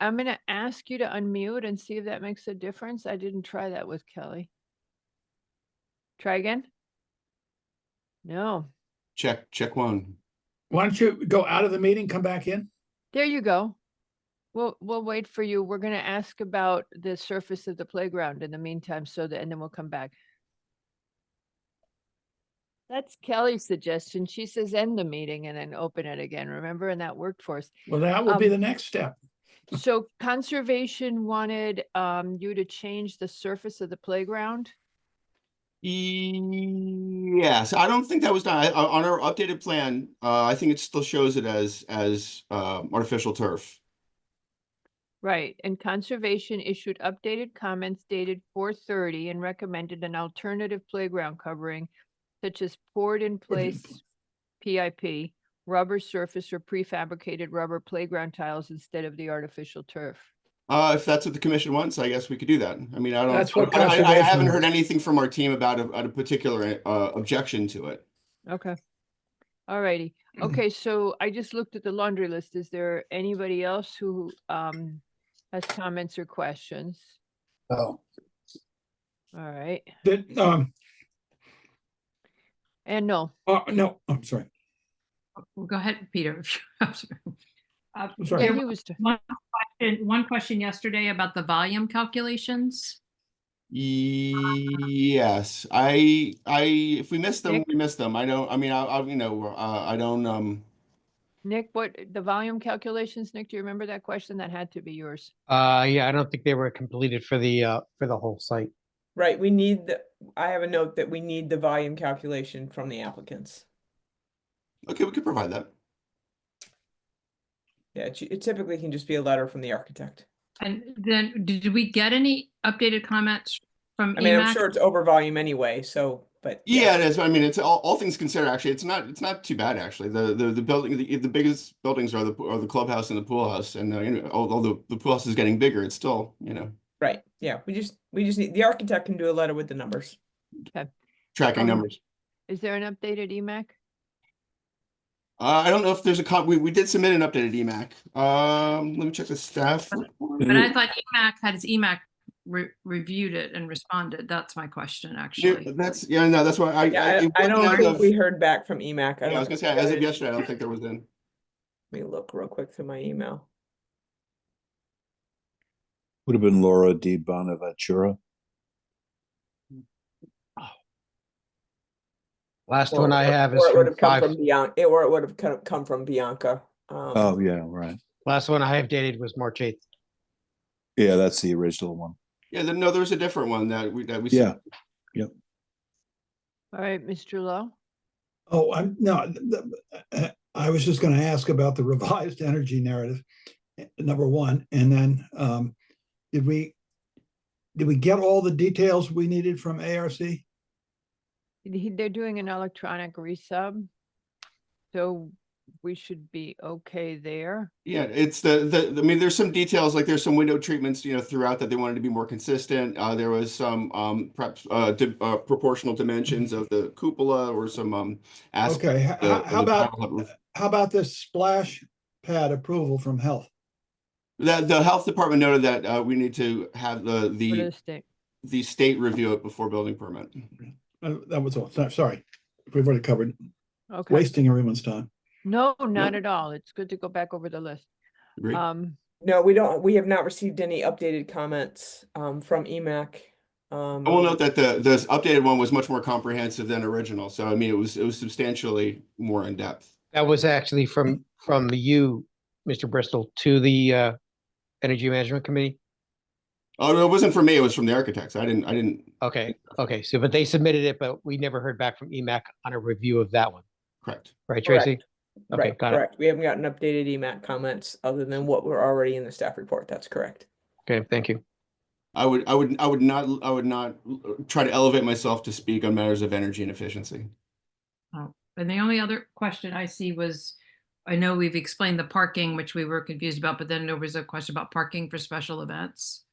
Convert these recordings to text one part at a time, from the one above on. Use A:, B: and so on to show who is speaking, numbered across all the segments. A: I'm gonna ask you to unmute and see if that makes a difference. I didn't try that with Kelly. Try again? No,
B: Check, check one.
C: Why don't you go out of the meeting, come back in?
A: there you go. We'll, we'll wait for you. We're gonna ask about the surface of the playground in the meantime, so that, and then we'll come back. That's Kelly's suggestion. She says end the meeting and then open it again, remember? And that worked for us.
C: Well, that will be the next step.
A: So conservation wanted um you to change the surface of the playground.
B: Yes, I don't think that was done. I- I- On our updated plan, uh, I think it still shows it as, as, uh, artificial turf.
A: Right, and conservation issued updated comments dated four thirty and recommended an alternative playground covering such as poured in place PIP, rubber surface or prefabricated rubber playground tiles instead of the artificial turf.
B: Uh, if that's what the commission wants, I guess we could do that. I mean, I
C: That's
B: don't,
C: what
B: I- I, I
C: conservation
B: haven't heard
C: wants.
B: anything from our team about a, about a particular, uh, objection to it.
A: Okay. All righty. Okay, so I just looked at the laundry list. Is there anybody else who um has comments or questions?
C: Oh.
A: All right,
C: That, um,
A: and no,
C: uh, no, I'm sorry.
D: Well, go ahead, Peter. if you- I'm sorry. Uh,
C: I'm sorry.
A: yeah,
D: There
A: he was,
D: was
A: t-
D: one question, one question yesterday about the volume calculations.
B: Yes, I, I, if we miss them,
A: Nick?
B: we miss them. I don't, I mean, I, I, you know, uh, I don't, um,
A: Nick, what, the volume calculations, Nick, do you remember that question? That had to be yours.
E: Uh, yeah, I don't think they were completed for the, uh, for the whole site.
F: Right, we need the, I have a note that we need the volume calculation from the applicants.
B: okay, we could provide that.
F: Yeah, it it typically can just be a letter from the architect.
D: And then, did we get any updated comments from E
F: I mean, I'm
D: EMAC?
F: sure it's over volume anyway, so, but.
B: Yeah, it is. I mean, it's all, all things considered, actually, it's not, it's not too bad, actually. The, the, the building, the, the biggest buildings are the, are the clubhouse and the pool house. And, uh, you know, al- although the pool house is getting bigger, it's still, you know,
F: Right, yeah, we just, we just need, the architect can do a letter with the numbers.
B: tracking
A: Um,
B: numbers.
A: Is there an updated E EMAC?
B: Uh, I don't know if there's a cop, we, we did submit an updated E EMAC. Um, let me check the staff. report.
D: But I thought E EMAC had his EMAC re- reviewed it and responded. That's my question,
B: Yeah,
D: actually.
B: That's, yeah, no, that's why I.
F: Yeah,
B: it
F: I,
B: wasn't
F: I don't
B: as
F: think
B: of-
F: we heard back from E EMAC.
B: Yeah, I was gonna say, as of yesterday, I don't think there was in.
F: Let me look real quick through my email.
G: Would have been Laura D. Bonaventura.
E: Last
F: Or-
E: one I
F: or-
E: have
F: or
E: is
F: it
E: from
F: would have come
E: five,
F: from Bianca, or it would have come- come from Bianca. um,
G: Oh, yeah, right.
E: last one I have dated was March eighth.
G: Yeah, that's the original one.
B: Yeah, then, no, there was a different one that we, that we.
G: Yeah.
A: All right, Mr. Lowe?
C: Oh, I'm, no, th- th- uh, I was just gonna ask about the revised energy narrative, eh, number one, and then, um, did we, did we get all the details we needed from ARC?
A: He- They're doing an electronic resub. So we should be okay there.
B: Yeah, it's the, the, I mean, there's some details, like there's some window treatments, you know, throughout that they wanted to be more consistent. Uh, there was some, um, perhaps, uh, di- uh, proportional dimensions of the cupola or some, um, aspect
C: Okay, h-
B: of the-
C: how,
B: of
C: how
B: the
C: about,
B: panel that was-
C: how about this splash pad approval from health?
B: The, the health department noted that, uh, we need to have the,
A: What
B: the,
A: is it?
B: the state review it before building permit.
C: Uh, That was all, so- sorry, we've already covered,
A: Okay,
C: wasting everyone's time.
A: no, not at all. It's good to go back over the list.
B: Agree?
A: Um,
F: No, we don't, we have not received any updated comments, um, from EMAC. Um,
B: I will note that the, this updated one was much more comprehensive than original. So I mean, it was, it was substantially more in depth.
E: That was actually from, from you, Mr. Bristol, to the, uh, Energy Management Committee.
B: Oh, no, it wasn't from me. It was from the architects. I didn't, I didn't,
E: Okay, okay, so, but they submitted it, but we never heard back from EMAC on a review of that one,
B: correct.
E: right,
F: Correct.
E: Tracy? Okay,
F: Right,
E: got it.
F: correct. We haven't gotten updated E EMAC comments other than what were already in the staff report. That's correct.
E: Okay, thank you.
B: I would, I would, I would not, I would not uh, try to elevate myself to speak on matters of energy and efficiency.
D: And the only other question I see was, I know we've explained the parking, which we were confused about, but then there was a question about parking for special events.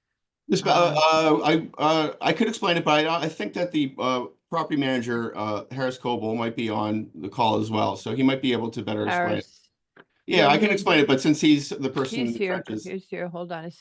B: This, uh, uh, I, uh, I could explain it, but I, I think that the, uh, property manager, uh, Harris Coble might be on the call as well. So he might be able to better explain. it.
A: Harris,
B: Yeah, I can explain it, but since he's the person.
A: He's
B: in the
A: here,
B: trenches-
A: he's here, hold on a